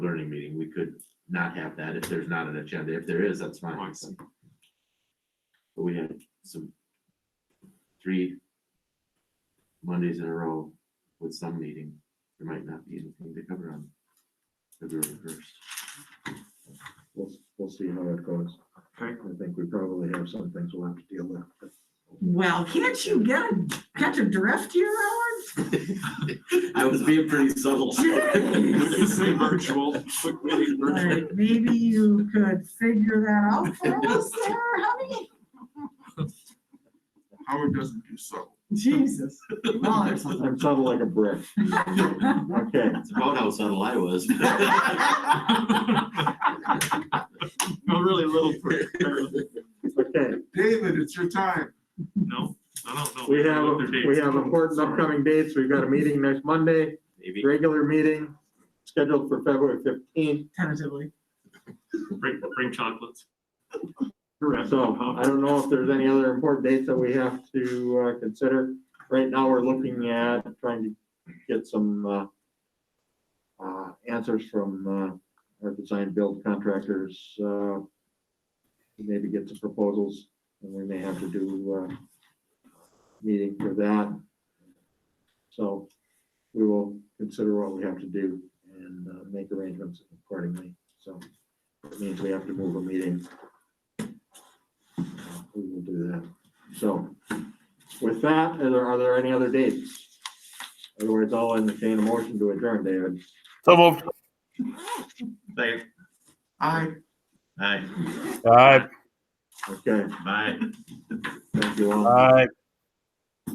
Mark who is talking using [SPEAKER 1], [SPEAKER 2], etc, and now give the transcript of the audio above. [SPEAKER 1] learning meeting, we could not have that if there's not an agenda, if there is, that's
[SPEAKER 2] Oh, I
[SPEAKER 1] fine.
[SPEAKER 2] see.
[SPEAKER 1] But we had some, three Mondays in a row with some meeting, there might not be anything to cover on February first.
[SPEAKER 3] We'll, we'll see how that goes.
[SPEAKER 2] Okay.
[SPEAKER 3] I think we probably have some things we'll have to deal with. but
[SPEAKER 4] Well, can't you get, a catch a drift here, Howard?
[SPEAKER 1] I was being pretty subtle.
[SPEAKER 2] We can say virtual, quick meeting virtual.
[SPEAKER 4] Like, maybe you could figure that out for us there, honey?
[SPEAKER 5] Howard doesn't do so.
[SPEAKER 4] Jesus. Well, there's something-
[SPEAKER 3] I'm sounding like a brick. Okay,
[SPEAKER 1] It's about how subtle I was.
[SPEAKER 2] No, really little for, for-
[SPEAKER 3] okay.
[SPEAKER 5] David, it's your time.
[SPEAKER 2] no, no, no, no.
[SPEAKER 3] We have,
[SPEAKER 2] Their dates.
[SPEAKER 3] we have important
[SPEAKER 2] Sorry.
[SPEAKER 3] upcoming dates. We've got a meeting next Monday,
[SPEAKER 1] Maybe.
[SPEAKER 3] regular meeting scheduled for February fifteenth.
[SPEAKER 4] Tentatively.
[SPEAKER 2] Bring, bring chocolates.
[SPEAKER 3] So uh, I don't know if there's any other important dates that we have to uh, consider. Right now, we're looking at trying to get some uh, uh, answers from uh, our design build contractors. uh, Maybe get some proposals and we may have to do uh meeting for that. So we will consider what we have to do and uh, make arrangements accordingly. So it means we have to move a meeting we will do that. So with that, are there, are there any other dates? Otherwise, I'll entertain a motion to adjourn, David.
[SPEAKER 6] So moved.
[SPEAKER 1] Thanks.
[SPEAKER 5] I,
[SPEAKER 1] All right,
[SPEAKER 6] Aye,
[SPEAKER 3] Okay,
[SPEAKER 1] bye.
[SPEAKER 3] thank you all.
[SPEAKER 6] aye.